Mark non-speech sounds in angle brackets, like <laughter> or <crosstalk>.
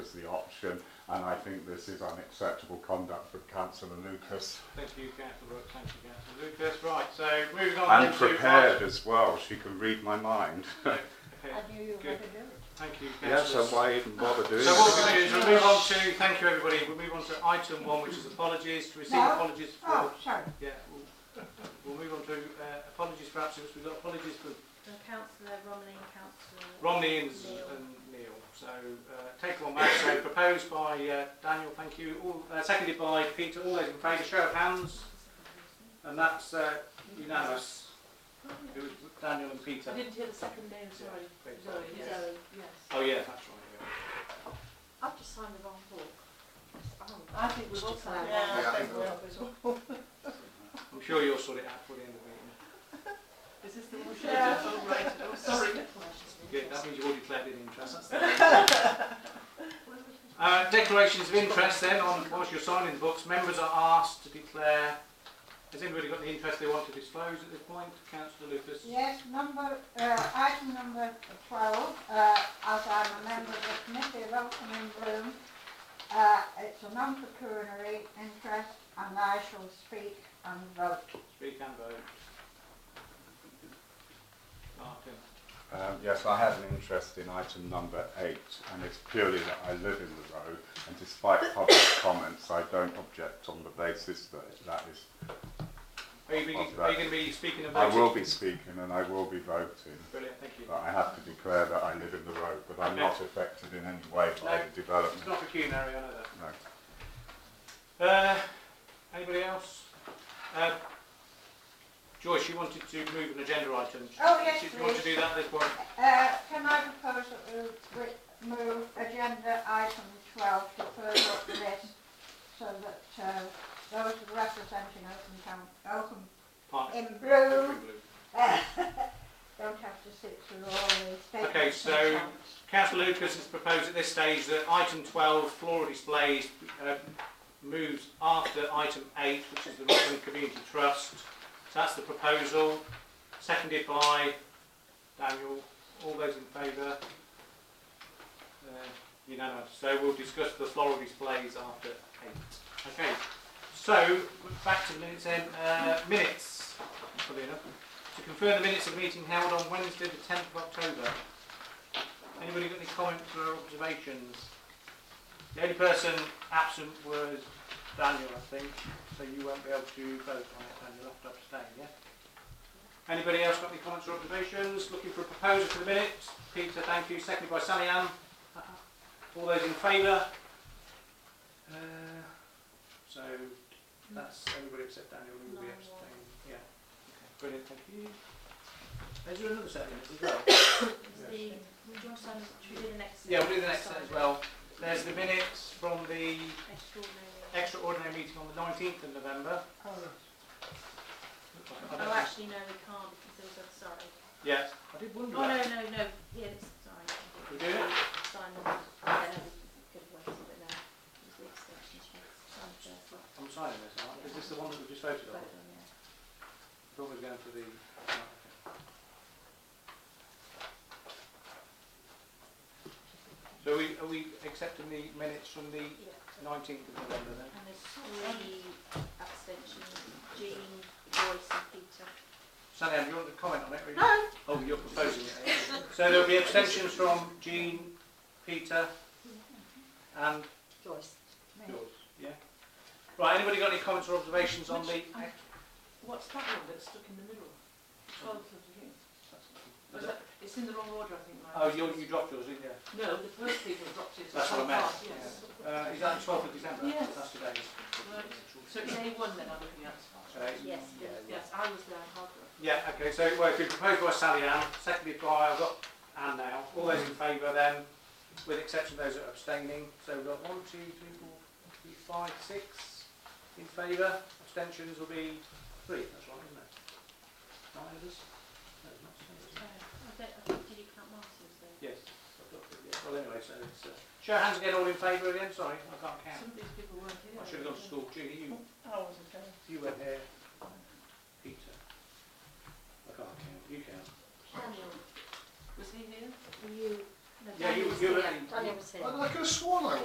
us the option, and I think this is unacceptable conduct from Councillor Lucas. Thank you, Councillor Brooks, thank you, Councillor Lucas. Right, so moving on. And then to prepared as well, she can read my mind. item- I knew you were Good. going to do it. Thank you, Yeah, so councillors. why even bother doing So what it? we're going to do is we'll move on to, thank you everybody, we'll move on to item one, which is apologies, to receive No. apologies for, Oh, sorry. yeah, we'll- we'll move on to uh, apologies for absence, we've got apologies for And councillor Romney and councillor. Romney and, Neil. and Neil. So uh, take on that, so proposed by uh, Daniel, thank you, all, uh, seconded by Peter, all those in favour, show of hands, and that's uh, unanimous. It was Daniel and Peter. I didn't hear the second name, sorry. Peter, Zoe, yes. Zoe, yes. Oh yeah, that's right. I've just signed the wrong book. Oh, I think we've all Just signed like- Yeah, I that. think Yeah. I'm sure you'll sort it out for the end of the meeting. Is this the one? Yeah. Oh, right. Oh, sorry. Good, that means you've already declared an interest. Uh, declarations of interest then, on whilst you're signing the books, members are asked to declare, has anybody got the interest they want to disclose at this point? Councillor Lucas? Yes, number, uh, item number twelve, uh, as I'm a member of the committee of Eltham and Bloom, uh, it's a non-pecuniary interest and I shall speak and vote. Speak and vote. Martin. Um, yes, I had an interest in item number eight, and it's purely that I live in the row, and despite public <coughs> comments, I don't object on the basis that that is. Are you, being, are you going to be speaking I about will be speaking and I will be voting, Brilliant, thank you. but I have to declare that I live in the row, but I'm not affected in any way by No. the development. It's not pecuniary, I know that. No. Uh, anybody else? Uh, Joyce, you wanted to move an agenda item. Oh, yes, Do you want to do that at this point? Uh, can I propose that we re- move agenda item twelve to further up the list so that, uh, those representing Eltham Town, Eltham Partner. in Bloom <laughs> Don't have to sit through all the statements. Okay, so- and chants. Councillor Lucas has proposed at this stage that item 12, floral displays, uh, moves after item 8, which is the Rutland Community Trust. So that's the proposal, seconded by Daniel. All those in favour? Uh, unanimous. So we'll discuss the floral displays after 8. Okay, so back to the minutes then. Uh, minutes, funnily enough. To confirm the minutes of the meeting held on Wednesday the 10th of October. Anybody got any comments or observations? The only person absent was Daniel, I think, so you won't be able to vote on it, and you'll have to abstain, yeah? Anybody else got any comments or observations? Looking for a proposer for the minutes? Peter, thank you, seconded by Sally Ann. All those in favour? Uh, so, that's everybody except Daniel, who will be Nine, one. abstaining, yeah. Okay, Brilliant, thank you. Is there another set of minutes as well? Is the, do you want to sign, should we do the next? Yeah, we'll do the next Sign set as well. There's the minutes from the Extraordinary. extraordinary meeting on the 19th of November. I Oh, don't- actually, no, we can't because there was, a- sorry. Yeah, I did wonder. Oh, no, that. no, no, yeah, it's, sorry. We do it? Sign them. Yeah, no, we could have waited, but no. It was the extension, so sign the first one, I'm signing this, aren't I? Is this the one that we just voted vote on? on it. I thought we were going for the... So are we, are we accepting the minutes from the Yeah. 19th of November then? And there's three abstentions, Jean, Joyce and Peter. Sally Ann, do you want to comment on it? or you- No, Oh, you're proposing it. eh? So there'll be abstentions from Jean, Peter and Joyce. Me. Yours, yeah. Right, anybody got any comments or observations on the... What's that one that's stuck in the middle? Twelfth of June. Was that- It's in the wrong order, I think. Mike. Oh, you, you dropped yours, didn't you? No, the first people dropped it. That's what I meant, Oh, Yes. Uh, is that the twelfth of December? Yes. That's today. Right. So it's A one then I'm looking at. Okay. Yes. Yeah, yeah. Yes, I was there, Harborough. Yeah, okay, so, well, it's been proposed by Sally Ann, seconded by, I've got Ann now. All those in favour then, with exception of those that are abstaining. So we've got one, two, three, four, three, five, six in favour. Abstentions will be three, that's right, isn't it? Nine of us? No, not no, seven. Uh, I don't, I think, did you count Martin's though? Yes. I've got- yeah, Well, anyway, so it's, uh, show of hands again, all in favour again, sorry, I can't count. Some of these people weren't I here. should have gone to school, Judy, you Oh, I wasn't there. You were here, Peter. I can't count. You count. Daniel, Was he here? you, no, Yeah, you- Daniel was you here, were- Daniel was here. I could have sworn I